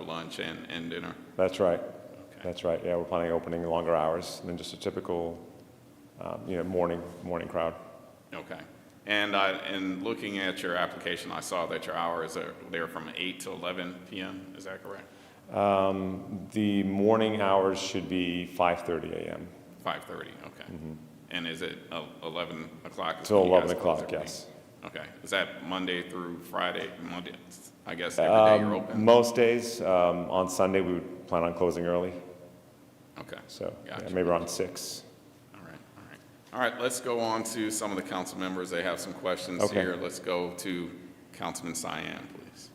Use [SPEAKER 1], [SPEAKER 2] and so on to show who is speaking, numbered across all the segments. [SPEAKER 1] lunch and, and dinner?
[SPEAKER 2] That's right.
[SPEAKER 1] Okay.
[SPEAKER 2] That's right. Yeah, we're planning on opening longer hours than just a typical, um, you know, morning, morning crowd.
[SPEAKER 1] Okay. And I, and looking at your application, I saw that your hours are, they're from 8 to 11 p.m., is that correct?
[SPEAKER 2] Um, the morning hours should be 5:30 a.m.
[SPEAKER 1] 5:30, okay. And is it el- 11 o'clock? is
[SPEAKER 2] Mm-hmm. till
[SPEAKER 1] when you
[SPEAKER 2] 11
[SPEAKER 1] guys close
[SPEAKER 2] o'clock.
[SPEAKER 1] everything?
[SPEAKER 2] Yes.
[SPEAKER 1] Okay. Is that Monday through Friday? Monday, I guess every day you're
[SPEAKER 2] Um,
[SPEAKER 1] open?
[SPEAKER 2] Most days. Um, on Sunday, we would plan on closing early.
[SPEAKER 1] Okay.
[SPEAKER 2] So yeah,
[SPEAKER 1] Gotcha.
[SPEAKER 2] maybe around six.
[SPEAKER 1] All right, all right. All right, let's go on to some of the council members. They have some questions
[SPEAKER 2] Okay.
[SPEAKER 1] here. Let's go to Councilman Cyan, please.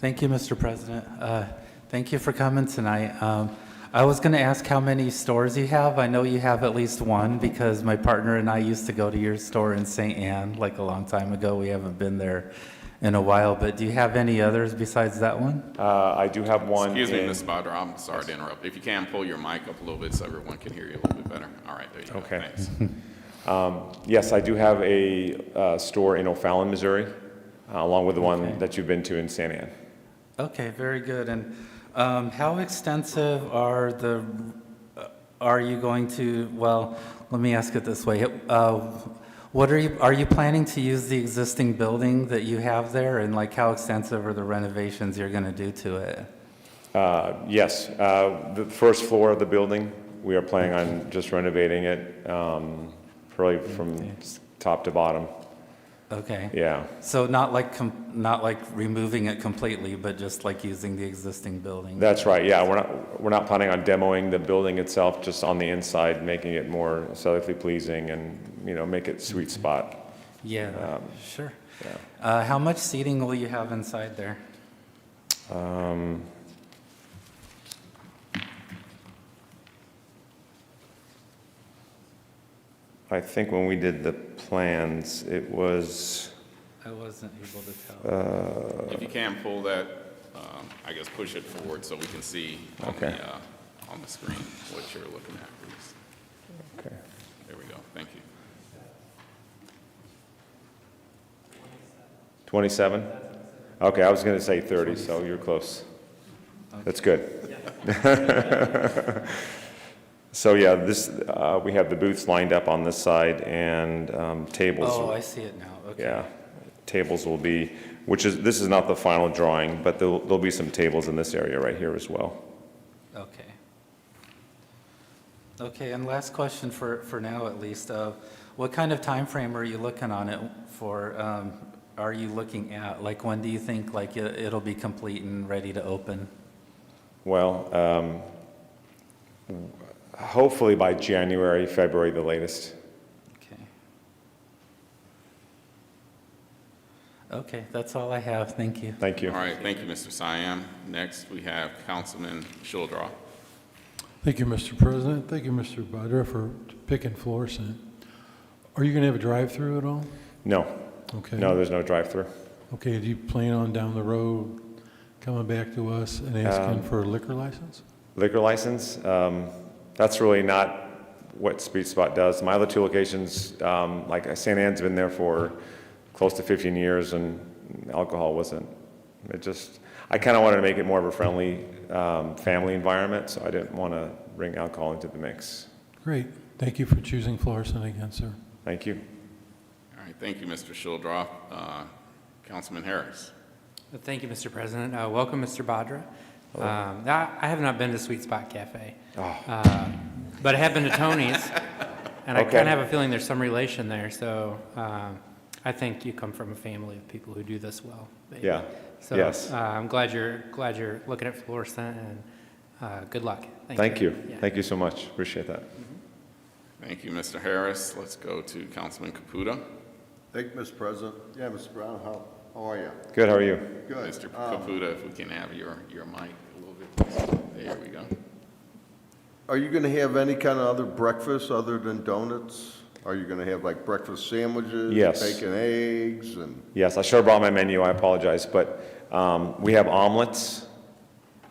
[SPEAKER 3] Thank you, Mr. President. Uh, Thank you for coming tonight. Um, I was going to ask how many stores you have. I know you have at least one because my partner and I used to go to your store in St. Anne like a long time ago. We haven't been there in a while, but do you have any others besides that one?
[SPEAKER 2] Uh, I do have one.
[SPEAKER 1] Excuse me,
[SPEAKER 2] in-
[SPEAKER 1] Ms. Badra, I'm sorry to interrupt. If you can, pull your mic up a little bit so everyone can hear you a little bit better. All right, there you go.
[SPEAKER 2] Okay.
[SPEAKER 1] Thanks.
[SPEAKER 2] Yes, I do have a uh, store in O'Fallon, Missouri, uh, along with the one that you've been to in San Ann.
[SPEAKER 3] Okay, very good. And um, how extensive are the, uh, are you going to, well, let me ask it this way. Uh, What are you, are you planning to use the existing building that you have there? And like, how extensive are the renovations you're going to do to it?
[SPEAKER 2] Uh, Yes, uh, the first floor of the building, we are planning on just renovating it, um, probably from s- top to bottom.
[SPEAKER 3] Okay.
[SPEAKER 2] Yeah,
[SPEAKER 3] So not like, com- not like removing it completely, but just like using the existing building?
[SPEAKER 2] that's right, yeah, we're not, we're not planning on demoing the building itself, just on the inside, making it more aesthetically pleasing and, you know, make it sweet spot.
[SPEAKER 3] Yeah, sure.
[SPEAKER 2] um, yeah.
[SPEAKER 3] Uh, How much seating will you have inside there?
[SPEAKER 2] Um, I think when we did the plans, it was,
[SPEAKER 3] I wasn't able to tell.
[SPEAKER 2] Uh,
[SPEAKER 1] If you can, pull that, um, I guess, push it forward so we can see on
[SPEAKER 2] Okay.
[SPEAKER 1] the, uh, on the screen what you're looking at, please.
[SPEAKER 2] okay.
[SPEAKER 1] There we go. Thank you.
[SPEAKER 2] 27? Okay, I was going to say 30, so you're close. That's good. So, yeah, this, uh, we have the booths lined up on this side and um, tables.
[SPEAKER 3] Oh, I see it now, okay.
[SPEAKER 2] Yeah, tables will be, which is, this is not the final drawing, but there'll, there'll be some tables in this area right here as well.
[SPEAKER 3] Okay. Okay, and last question for, for now at least, uh, what kind of time frame are you looking on it for, um, are you looking at? Like, when do you think, like, it- it'll be complete and ready to open?
[SPEAKER 2] Well, um, hopefully by January, February, the latest.
[SPEAKER 3] Okay. Okay, that's all I have, thank you.
[SPEAKER 2] Thank you.
[SPEAKER 1] All right, thank you, Mr. Cyan. Next, we have Councilman Shuldroff.
[SPEAKER 4] Thank you, Mr. President. Thank you, Mr. Badra, for picking Florissant. Are you going to have a drive-through at all?
[SPEAKER 2] No,
[SPEAKER 4] Okay.
[SPEAKER 3] Mm-hmm.
[SPEAKER 2] no, there's no drive-through.
[SPEAKER 4] Okay, do you plan on down the road coming back to us and asking for a liquor license?
[SPEAKER 2] Liquor license, um, that's really not what Speed Spot does. My other two locations, um, like St. Anne's been there for close to 15 years and alcohol wasn't. It just, I kind of wanted to make it more of a friendly, um, family environment, so I didn't want to bring alcohol into the mix.
[SPEAKER 4] Great. Thank you for choosing Florissant again, sir.
[SPEAKER 2] Thank you.
[SPEAKER 1] All right, thank you, Mr. Shuldroff. Uh, Councilman Harris.
[SPEAKER 5] Thank you, Mr. President. Uh, Welcome, Mr. Badra. Um, I I have not been to Sweet Spot Cafe,
[SPEAKER 2] Oh.
[SPEAKER 5] Uh, but I have been to Tony's, and I
[SPEAKER 2] Okay.
[SPEAKER 5] kind of have a feeling there's some relation there, so um, I think you come from a family of people who do this well. maybe.
[SPEAKER 2] Yeah.
[SPEAKER 5] So
[SPEAKER 2] Yes.
[SPEAKER 5] uh, I'm glad you're, glad you're looking at Florissant, and uh, good luck.
[SPEAKER 2] Thank you.
[SPEAKER 5] Yeah.
[SPEAKER 2] Thank you so much. Appreciate that.
[SPEAKER 1] Thank you, Mr. Harris. Let's go to Councilman Caputa.
[SPEAKER 6] Thank you, Mr. President. Yeah, Mr. Brown, how, how are you?
[SPEAKER 2] Good, how are you?
[SPEAKER 6] Good.
[SPEAKER 1] Mr.
[SPEAKER 6] Um,
[SPEAKER 1] Caputa, if we can have your, your mic a little bit. please. There we go.
[SPEAKER 6] Are you gonna have any kind of other breakfast other than donuts? Are you gonna have like breakfast sandwiches?
[SPEAKER 2] Yes.
[SPEAKER 6] Bacon, eggs, and,
[SPEAKER 2] Yes, I should have brought my menu, I apologize, but um, we have omelets.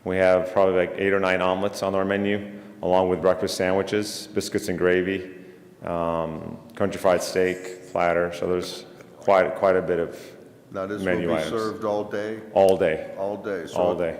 [SPEAKER 2] We have probably like eight or nine omelets on our menu, along with breakfast sandwiches, biscuits and gravy, um, country fried steak, platter, so there's quite, quite a bit of
[SPEAKER 6] now this will
[SPEAKER 2] Menu
[SPEAKER 6] be
[SPEAKER 2] items.
[SPEAKER 6] served all day,
[SPEAKER 2] all day.
[SPEAKER 6] all day. So
[SPEAKER 2] All day.